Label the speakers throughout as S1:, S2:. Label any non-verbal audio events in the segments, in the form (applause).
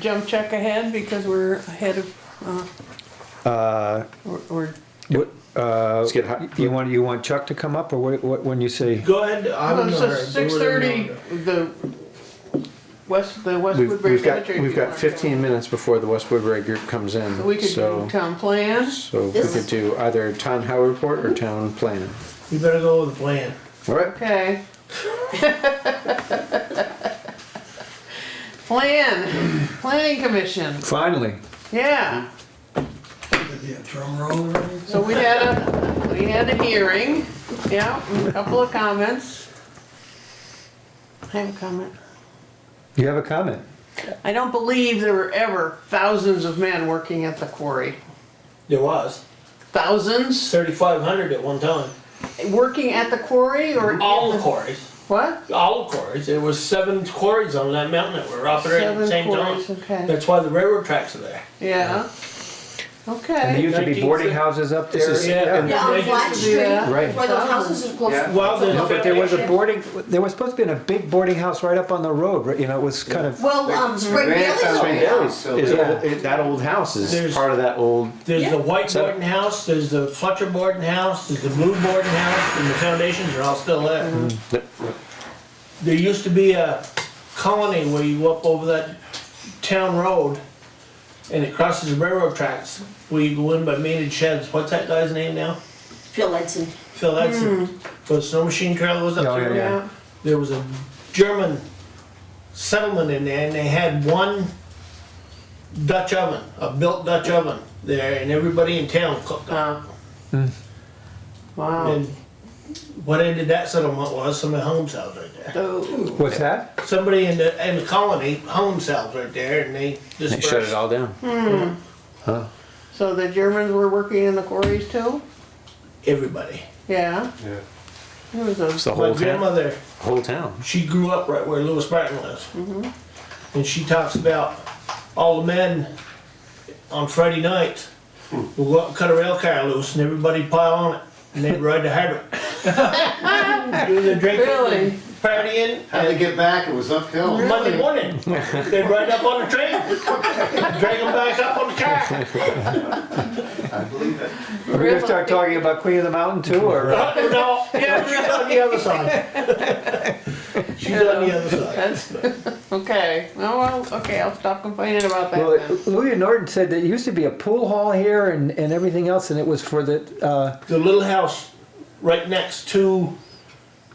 S1: Jump check ahead because we're ahead of, uh, or, or,
S2: Uh, What, uh,
S3: Let's get hi-
S2: you want, you want Chuck to come up, or what, what, when you say?
S4: Go ahead. I
S1: well,
S4: don't
S1: it's
S4: know.
S1: six thirty, the West, the West
S3: We've,
S1: Woodbury
S3: we've got,
S1: Cemetery.
S3: we've got fifteen minutes before the West Woodbury group comes
S1: We
S3: in,
S1: could do
S3: so,
S1: town plan,
S3: so we could do either town highway report or town plan.
S4: You better go with the plan.
S3: All right,
S1: okay. (laughs) Plan, planning commission,
S2: Finally,
S1: yeah,
S5: Could be a drum roll or anything?
S1: so we had a, we had a hearing, yeah, and a couple of comments. I have a comment.
S2: you have a comment?
S1: I don't believe there were ever thousands of men working at the quarry.
S4: There was
S1: Thousands
S4: thirty-five hundred at one time.
S1: working at the quarry or at
S4: All
S1: the-
S4: quarries,
S1: What?
S4: all quarries. There was seven quarries on that mountain that were operating at the
S1: Seven
S4: same
S1: quarries,
S4: time.
S1: okay.
S4: That's why the railroad tracks are there.
S1: Yeah.
S2: And there
S1: Okay.
S2: used to be boarding
S4: 19th.
S2: houses up
S3: This
S2: there.
S3: is-
S2: and-
S6: Yeah, on
S4: They
S6: Flat
S4: used
S1: to do
S6: Street,
S1: that.
S6: where
S3: Right.
S6: those houses are
S3: Yeah.
S6: close.
S4: Well, there's
S2: No, But there was a
S4: Yeah.
S2: boarding, there was supposed to be a big boarding house right up on the road, right, you know, it was kind of,
S6: Well, um, Spring Valley's
S3: Spring
S6: over
S3: Valley
S6: there.
S3: is old,
S2: Yeah.
S3: it- that old house is
S4: There's-
S3: part of that old,
S4: There's the white
S3: So-
S4: Borden house, there's the Fletcher Borden house, there's the blue Borden house, and the foundations are all still there.
S2: Mm-hmm.
S4: There used to be a colony where you go up over that town road and it crosses the railroad tracks. Where you go in by mated sheds. What's that guy's name now?
S6: Phil Edson.
S4: Phil Edson. Where the snow machine trailer was up
S2: Oh, Mm-hmm. yeah,
S4: there.
S2: yeah.
S1: Yeah.
S4: There was a German settlement in there and they had one Dutch oven, a built Dutch oven there, and everybody in town cooked on it.
S1: Uh, Wow.
S4: And what ended that settlement was somebody hung themselves right there.
S1: Oh,
S2: what's that?
S4: Somebody in the in the colony hung themselves right there, and they
S3: they
S4: dispersed.
S3: shut it all down.
S1: So the Germans were working in the quarries too?
S4: Everybody.
S1: Yeah.
S3: Yeah.
S1: It was
S3: It's
S1: a,
S3: the
S4: My
S3: whole town,
S4: grandmother,
S3: whole town.
S4: she grew up right where Lewis Bratton lives, and she talks about all the men on Friday nights will go up and cut a rail car loose, and everybody pile on it, and they'd ride to Hardwick. Do their drinking,
S1: Really?
S4: and partying,
S7: How'd they
S4: and
S7: get back? It was uphill.
S4: Monday morning, they'd ride up on the train, drag them back up on the car.
S7: I believe it.
S2: Are we gonna start talking about Queen of the Mountain too, or? uh,
S4: Uh, No, yeah, she's on the other side. She's on the other side.
S1: that's, (laughs) okay. Oh, well, okay, I'll stop complaining about
S2: (laughs) Well,
S1: that then.
S2: Louis Norton said that it used to be a pool hall here and, and everything else, and it was for the, uh,
S4: The little house right next to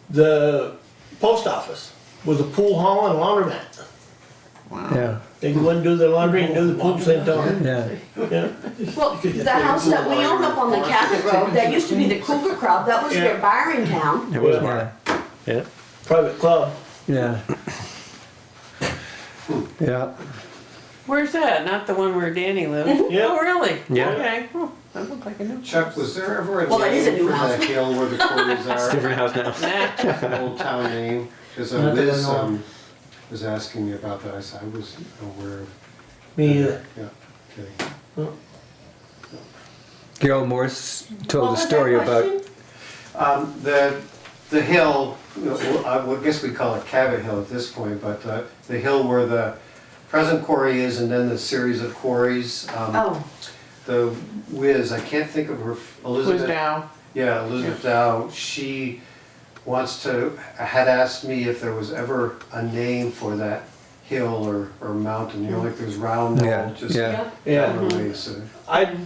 S4: the post office was a pool hall and laundromat.
S2: yeah,
S4: They go and do their laundry and do the pool same time.
S2: yeah.
S4: Yeah.
S6: Well, the house that we own up on the Cabot Road, that used to be the Cougar Club, that was near
S4: Yeah.
S6: Byron
S2: Oh,
S6: Town.
S3: It was
S4: Yeah.
S3: mine. Yeah.
S4: Private club.
S2: Yeah. Yeah,
S1: Where's that? Not the one where Danny lives?
S4: Yeah.
S1: Oh, really?
S3: Yeah.
S1: Okay. Oh, That looked like a new.
S7: Chuck, was there ever a
S6: Well, that is a
S7: name
S6: new
S7: for
S6: house.
S7: the hill where
S6: (laughs)
S7: the quarries are?
S3: Different house now.
S1: Nah.
S7: Old town name? Because
S4: Not that I
S7: Liz
S4: know of.
S7: um, was asking me about that. I said, I was aware of.
S4: Me uh, either.
S7: Yeah, okay.
S2: Gerald Morse
S6: What
S2: told a
S6: was that
S2: story about,
S6: question?
S7: Um, the, the hill, well, I would guess we call it Cabot Hill at this point, but uh, the hill where the present quarry is and then the series of quarries. um,
S6: Oh,
S7: The whiz, I can't think of her,
S1: Was
S7: Elizabeth.
S1: down.
S7: Yeah, Elizabeth Dow, she wants to, had asked me if there was ever a name for that hill or, or mountain, you know, like there's round
S2: Yeah,
S7: knoll, just
S2: yeah.
S7: down
S4: Yeah.
S7: the way, so.
S4: I,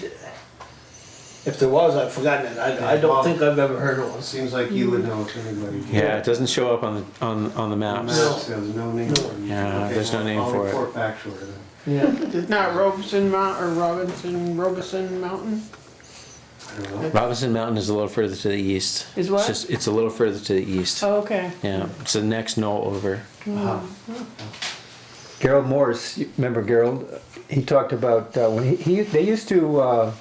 S4: if there was, I've forgotten it. I, I don't think I've ever heard of one.
S7: It seems like you would know if anybody. did.
S3: Yeah, it doesn't show up on, the on, on the maps.
S4: No.
S7: Maps, There's no name for it.
S3: Yeah,
S7: Okay,
S3: there's no
S7: I'll-
S3: name for it.
S7: I'll report back to her then.
S4: Yeah.
S1: It's not Robeson Mount or Robinson, Robeson Mountain?
S7: I don't know.
S3: Robinson Mountain is a little further to the east.
S1: Is what?
S3: It's, just, it's a little further to the east.
S1: Oh, okay.
S3: Yeah, it's the next knoll over.
S2: Gerald Morse, you remember Gerald? He talked about uh, when he, he, they used to uh,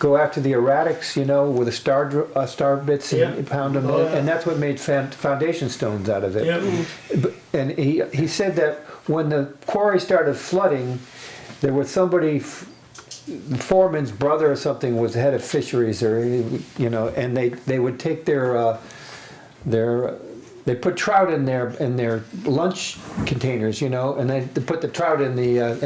S2: go after the erratics, you know, with a star, dr- uh, star bits and
S4: Yeah.
S2: pound them,
S4: Oh, yeah.
S2: and that's what made fan, foundation stones out of it.
S4: Yeah.
S2: But- And he, he said that when the quarry started flooding, there was somebody, f- the foreman's brother or something was head of fisheries or, you know, and they, they would take their, uh, their, they put trout in their, in their lunch containers, you know, and then they put the trout in the, uh,